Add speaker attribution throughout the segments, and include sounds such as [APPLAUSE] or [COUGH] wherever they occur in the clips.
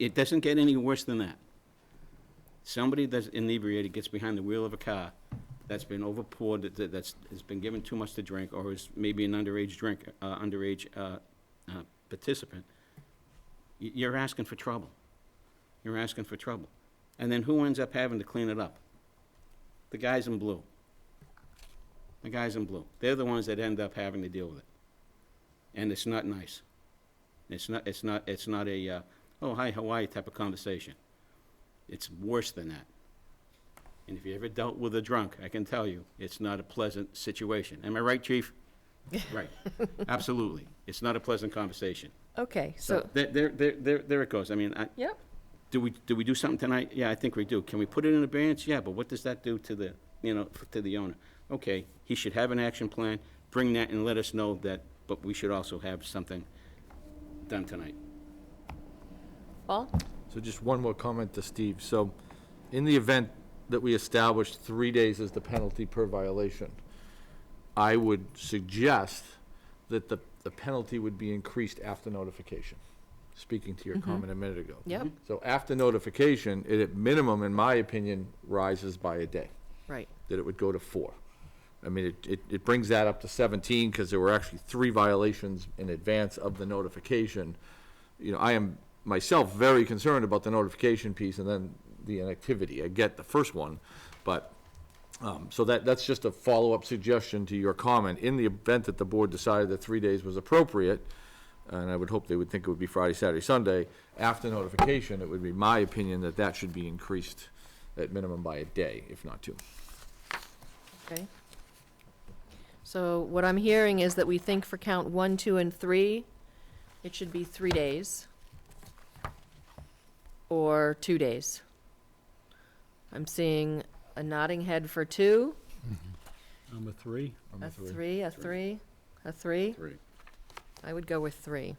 Speaker 1: It doesn't get any worse than that. Somebody that's inebriated gets behind the wheel of a car that's been overpoured, that- that- that's, has been given too much to drink, or is maybe an underage drink, uh, underage uh, uh, participant. Y- You're asking for trouble. You're asking for trouble. And then who ends up having to clean it up? The guys in blue. The guys in blue. They're the ones that end up having to deal with it. And it's not nice. It's not, it's not, it's not a, uh, oh, hi, how are you type of conversation. It's worse than that. And if you ever dealt with a drunk, I can tell you, it's not a pleasant situation. Am I right, chief? Right, absolutely. It's not a pleasant conversation.
Speaker 2: Okay, so,
Speaker 1: There, there, there, there there it goes. I mean, I,
Speaker 2: yep,
Speaker 1: do we, do we do something tonight? Yeah, I think we do. Can we put it in abeyance? Yeah, but what does that do to the, you know, f- to the owner? Okay, he should have an action plan, bring that and let us know that, but we should also have something done tonight.
Speaker 2: Paul?
Speaker 3: So just one more comment to Steve. So in the event that we establish three days as the penalty per violation, I would suggest that the, the penalty would be increased after notification, speaking to your comment a minute ago.
Speaker 2: Yep,
Speaker 3: So after notification, it at minimum, in my opinion, rises by a day
Speaker 2: right.
Speaker 3: that it would go to four. I mean, it, it, it brings that up to seventeen, because there were actually three violations in advance of the notification. You know, I am myself very concerned about the notification piece and then the inactivity. I get the first one, but, um, so that, that's just a follow-up suggestion to your comment. In the event that the board decided that three days was appropriate, and I would hope they would think it would be Friday, Saturday, Sunday, after notification, it would be my opinion that that should be increased at minimum by a day, if not two.
Speaker 2: Okay. So what I'm hearing is that we think for count one, two, and three, it should be three days or two days. I'm seeing a nodding head for two,
Speaker 4: Number three,
Speaker 2: a three, a three, a three.
Speaker 1: Three.
Speaker 2: I would go with three.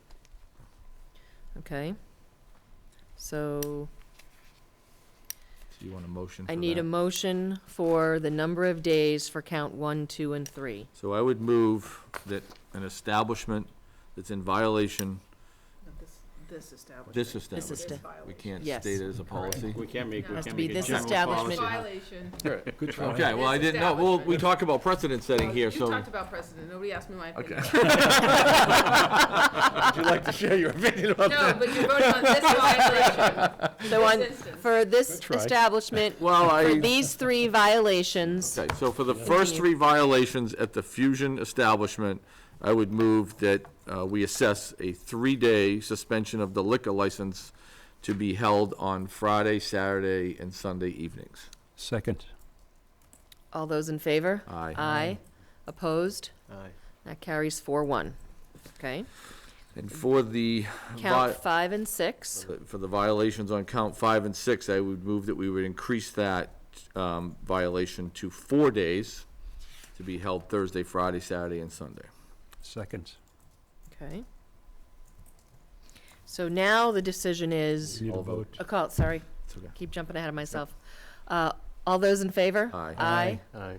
Speaker 2: Okay. So
Speaker 3: Do you want a motion for
Speaker 2: I need a
Speaker 3: that?
Speaker 2: motion for the number of days for count one, two, and three.
Speaker 3: So I would move that an establishment that's in violation,
Speaker 5: This, this establishment.
Speaker 3: this
Speaker 2: This
Speaker 3: establishment,
Speaker 2: is the-
Speaker 3: we can't
Speaker 2: Yes.
Speaker 3: state it as a policy.
Speaker 1: We can't make, we
Speaker 2: Has
Speaker 1: can't
Speaker 2: to be
Speaker 1: make a
Speaker 2: this
Speaker 1: general
Speaker 2: establishment.
Speaker 1: policy.
Speaker 5: Violation.
Speaker 4: good try.
Speaker 3: Okay, well, I didn't know, well, we talk about precedent setting here,
Speaker 5: You
Speaker 3: so.
Speaker 5: talked about precedent, nobody asked me my
Speaker 3: Okay.
Speaker 5: opinion.
Speaker 3: Would
Speaker 5: [LAUGHS]
Speaker 3: you like to share your opinion about
Speaker 5: No, but you're voting on this violation,
Speaker 2: So on,
Speaker 5: this instance.
Speaker 2: for this
Speaker 3: [LAUGHS]
Speaker 4: try.
Speaker 2: establishment,
Speaker 3: [LAUGHS] Well,
Speaker 2: for
Speaker 3: I,
Speaker 2: these three violations,
Speaker 3: okay, so for the first
Speaker 2: Continue.
Speaker 3: three violations at the Fusion establishment, I would move that, uh, we assess a three-day suspension of the liquor license to be held on Friday, Saturday, and Sunday evenings.
Speaker 4: Second.
Speaker 2: all those in favor?
Speaker 3: Aye.
Speaker 2: Aye. Opposed? Aye. That carries four one. Okay.
Speaker 3: And for the. vi-
Speaker 2: Count five and six.
Speaker 3: But For the violations on count five and six, I would move that we would increase that um, violation to four days to be held Thursday, Friday, Saturday, and Sunday.
Speaker 4: Second.
Speaker 2: Okay. So now the decision is,
Speaker 4: Need a
Speaker 3: All vote.
Speaker 4: vote.
Speaker 2: oh, call, sorry,
Speaker 3: It's okay.
Speaker 2: keep jumping ahead of myself. Uh, all those in favor?
Speaker 3: Aye.
Speaker 2: Aye.
Speaker 4: Aye.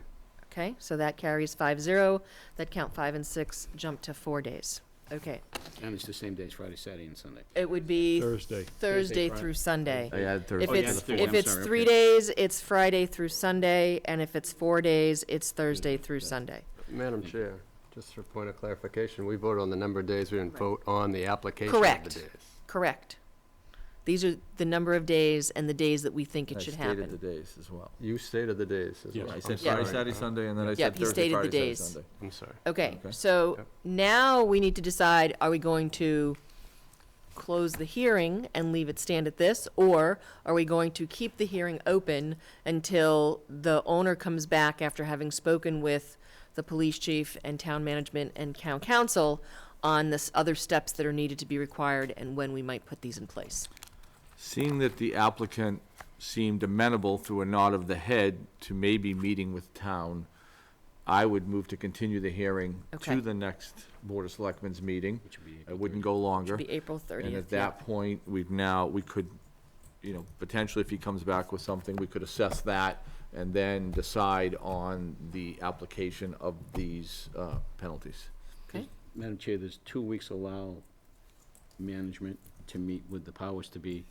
Speaker 2: Okay, so that carries five zero. That count five and six jump to four days. Okay.
Speaker 1: And it's the same days, Friday, Saturday, and Sunday.
Speaker 2: It would be
Speaker 4: Thursday.
Speaker 2: Thursday
Speaker 1: Friday.
Speaker 2: through Sunday.
Speaker 3: I add
Speaker 2: If
Speaker 1: Oh, yeah,
Speaker 3: Thursday.
Speaker 2: it's,
Speaker 1: the Thursday,
Speaker 2: if
Speaker 1: I'm
Speaker 2: it's
Speaker 1: sorry,
Speaker 2: three
Speaker 1: okay.
Speaker 2: days, it's Friday through Sunday, and if it's four days, it's Thursday through Sunday.
Speaker 6: Madam Chair, just for point of clarification, we voted on the number of days, we didn't vote on the application of
Speaker 2: Correct.
Speaker 6: the days.
Speaker 2: Correct. These are the number of days and the days that we think
Speaker 3: Oh, I
Speaker 2: it should
Speaker 3: stated the
Speaker 2: happen.
Speaker 3: days as well.
Speaker 6: You stated the days as
Speaker 4: Yes.
Speaker 6: well.
Speaker 3: I
Speaker 6: I'm
Speaker 3: said
Speaker 2: Yeah.
Speaker 3: Friday,
Speaker 6: sorry.
Speaker 3: Saturday, Sunday, and then I
Speaker 2: Yeah,
Speaker 3: said
Speaker 2: he
Speaker 3: Thursday,
Speaker 2: stated the
Speaker 3: Friday, Saturday,
Speaker 2: days.
Speaker 3: Sunday.
Speaker 6: I'm sorry.
Speaker 2: Okay,
Speaker 3: Okay.
Speaker 2: so
Speaker 6: Yep.
Speaker 2: now we need to decide, are we going to close the hearing and leave it stand at this? Or are we going to keep the hearing open until the owner comes back after having spoken with the police chief and town management and town council on this other steps that are needed to be required and when we might put these in place?
Speaker 3: Seeing that the applicant seemed amenable through a nod of the head to maybe meeting with town, I would move to continue the hearing
Speaker 2: Okay.
Speaker 3: to the next Board of Selectmen's meeting.
Speaker 1: Which would be
Speaker 3: It wouldn't go longer.
Speaker 2: Should be April thirtieth.
Speaker 3: And at that point, we've now, we could, you know, potentially if he comes back with something, we could assess that and then decide on the application of these uh, penalties.
Speaker 2: Okay,
Speaker 1: Madam Chair, there's two weeks allow management to meet with the powers to be